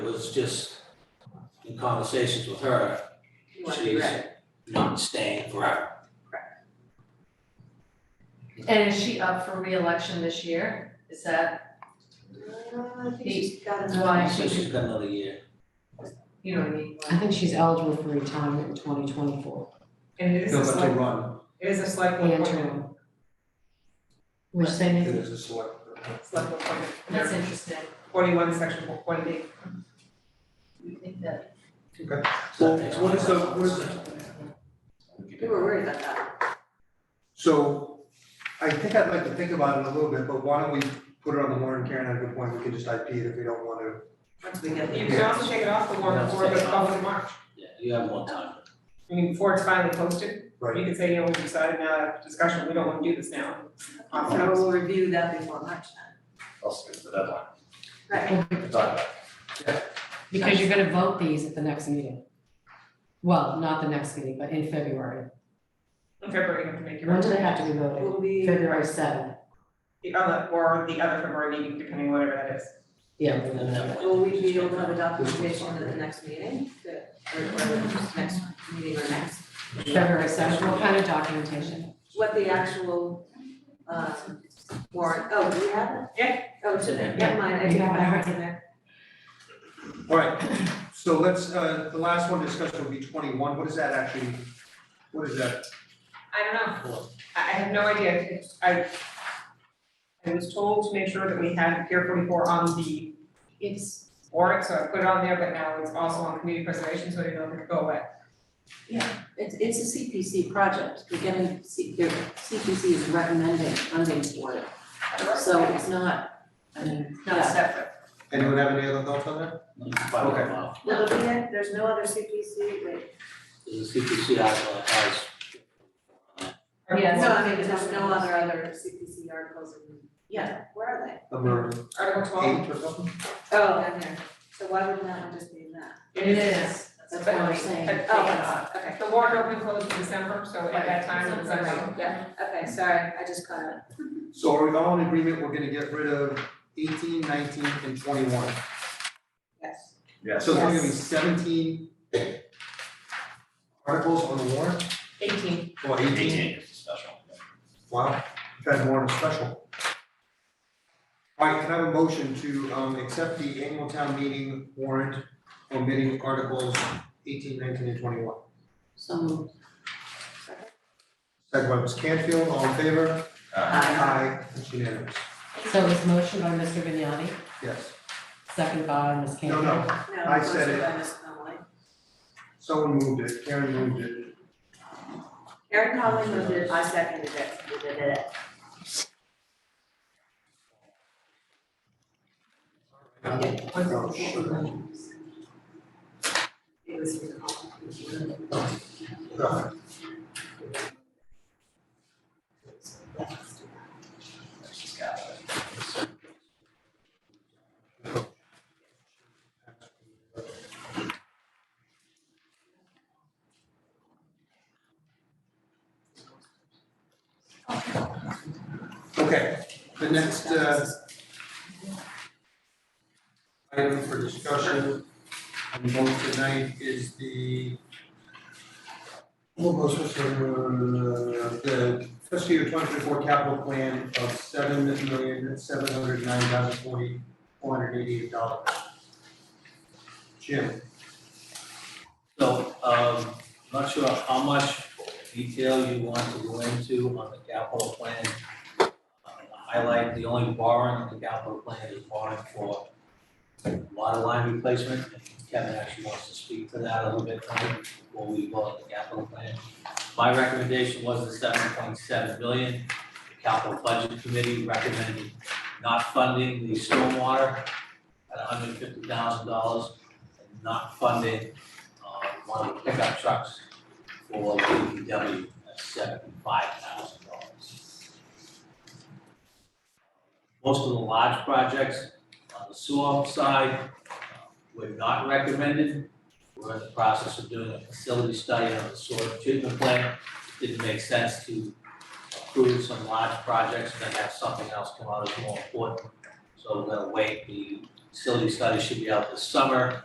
It was just in conversations with her, You wanna be Jeez. ready. not staying forever. And is she up for reelection this year? Is that, Uh, I think she's got another. Why? So she's got another year. you know what I mean? I think she's eligible for retirement in twenty twenty-four, And it is a select, run, it is a select board appointment, interim. Which thing, is a select. select board appointment. That's interesting. Forty-one, section four, one B. You think that, So that takes What is the- one. what is We were worried about that. So I think I'd like to think about it a little bit, but why don't we put it on the warrant, Karen, at a good point, we can just IP it if we don't want to. Once we get You there. can also take it off the warrant before it goes public in March. Yeah, you have more time. I mean, before it's finally posted, you Right. could say, you know, we decided now, after discussion, we don't wanna do this now. Opt So out. we'll review that before March I'll skip the deadline. then. Right. It's not- because you're gonna vote these at the next meeting. Well, not the next meeting, but in February, In February, you have to make your. when do they have to be voted? Will we, February seventh, The other, or the other February meeting, depending on whatever that is. yeah. we're And gonna- that way- will we be able to have a documentation at the next meeting? That- Or or next meeting or next? February seventh, what kind of documentation? What the actual um warrant, oh, do we have it? Yeah. Oh, it's in there, never mind, I Yeah. didn't have it in there. All right, so let's, uh, the last one discussed will be twenty-one, what is that actually, what is that? I don't know. I, I have no idea. It's- I, I was told to make sure that we had Pier forty-four on the it's, warrant, so I put it on there, but now it's also on community preservation, so I didn't know if it could go away. It's, it's a CPC project, we're getting, C- their- CPC is recommending funding for it, so it's not, I mean, not separate. Anyone have any other thoughts on that? You can find Okay. them out. No, but we had- there's no other CPC, wait. The CPC article has. Yes. No, I mean, there's no other other CPC articles in, yeah, where are they? Number Article twelve, eight or something? Oh, in there, so why wouldn't that one just be in that? it is, that's what I'm saying. but- Oh, it's not, okay. the warrant opened closed in December, so at that time it was Right, unavailable. yeah, okay, sorry, I just caught it. So are we all in agreement, we're gonna get rid of eighteen, nineteen, and twenty-one? Yes. Yes. So there's gonna be seventeen articles on the warrant, Eighteen. or eighteen? Eighteen is special. Wow, that's more than special. All right, can I have a motion to um accept the annual town meeting warrant omitting articles 18, 19, and twenty-one? So Second by Ms. Canfield, all in favor? Uh, Aye. It's unanimous, So it was motion by Mr. Vignani, yes. second by Ms. No, Campbell. no, No, I said motion it. by Ms. Conley. someone moved it, Karen moved it. Erin Conley moved it, I seconded it. You did it. Oh, sugar. It was. All she's got it. right. Okay, the next uh item for discussion and vote tonight is the almost, uh, the fiscal year twenty twenty-four capital plan of seven million, seven hundred nine thousand forty, four hundred eighty-eight dollars. Jim, So, um, not sure how much detail you want to go into on the capital plan. Uh, Highlight, the only borrowing on the capital plan is borrowing for water line replacement. Kevin actually wants to speak to that a little bit tonight before we vote on the capital plan. My recommendation was the seven point seven billion. The Capital Budget Committee recommended not funding the stormwater at hundred and fifty thousand dollars and not funding uh, one of the pickup trucks for DPW at seventy-five thousand dollars. Most of the large projects on the sewer side uh, were not recommended. We're in the process of doing a facility study on the sewer treatment plant. Didn't make sense to approve some large projects and then have something else come out as more important. So we're gonna wait the facility study should be out this summer.